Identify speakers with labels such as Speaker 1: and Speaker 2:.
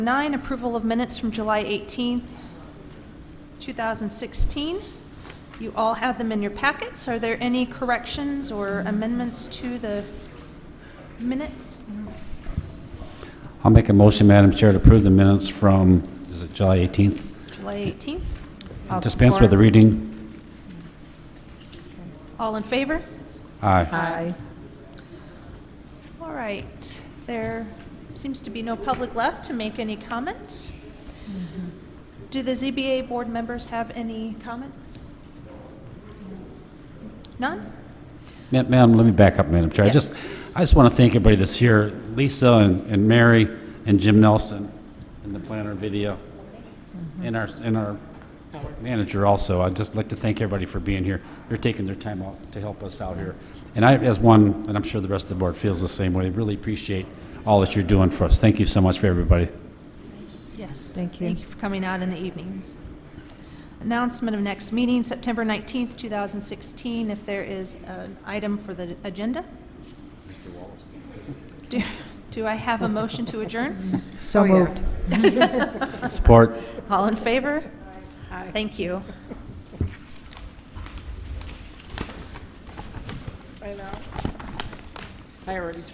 Speaker 1: Nine, approval of minutes from July 18th, 2016. You all have them in your packets. Are there any corrections or amendments to the minutes?
Speaker 2: I'll make a motion, Madam Chair, to approve the minutes from, is it July 18th?
Speaker 1: July 18th? I'll
Speaker 2: Dispense with the
Speaker 1: support.
Speaker 2: reading.
Speaker 1: All in favor?
Speaker 2: Aye.
Speaker 3: Aye.
Speaker 1: All right. There seems to be no public left to make any comments. Do the ZBA board members have any comments? None?
Speaker 2: Ma- Madam, let me back up, Madam Chair. I just, I just want to thank everybody that's here, Lisa and and Mary and Jim Nelson and the planner video,
Speaker 1: Mm-hmm.
Speaker 2: and our, and our manager also. I'd just like to thank everybody for being here. They're taking their time out to help us out here. And I, as one, and I'm sure the rest of the board feels the same way, really appreciate all that you're doing for us. Thank you so much for everybody.
Speaker 1: Yes.
Speaker 3: Thank you.
Speaker 1: Thank you for coming out in the evenings. Announcement of next meeting, September 19th, 2016, if there is an item for the agenda. Do- Do I have a motion to adjourn?
Speaker 3: So moved.
Speaker 2: Support.
Speaker 1: All in favor? Thank you.
Speaker 4: I know. I already told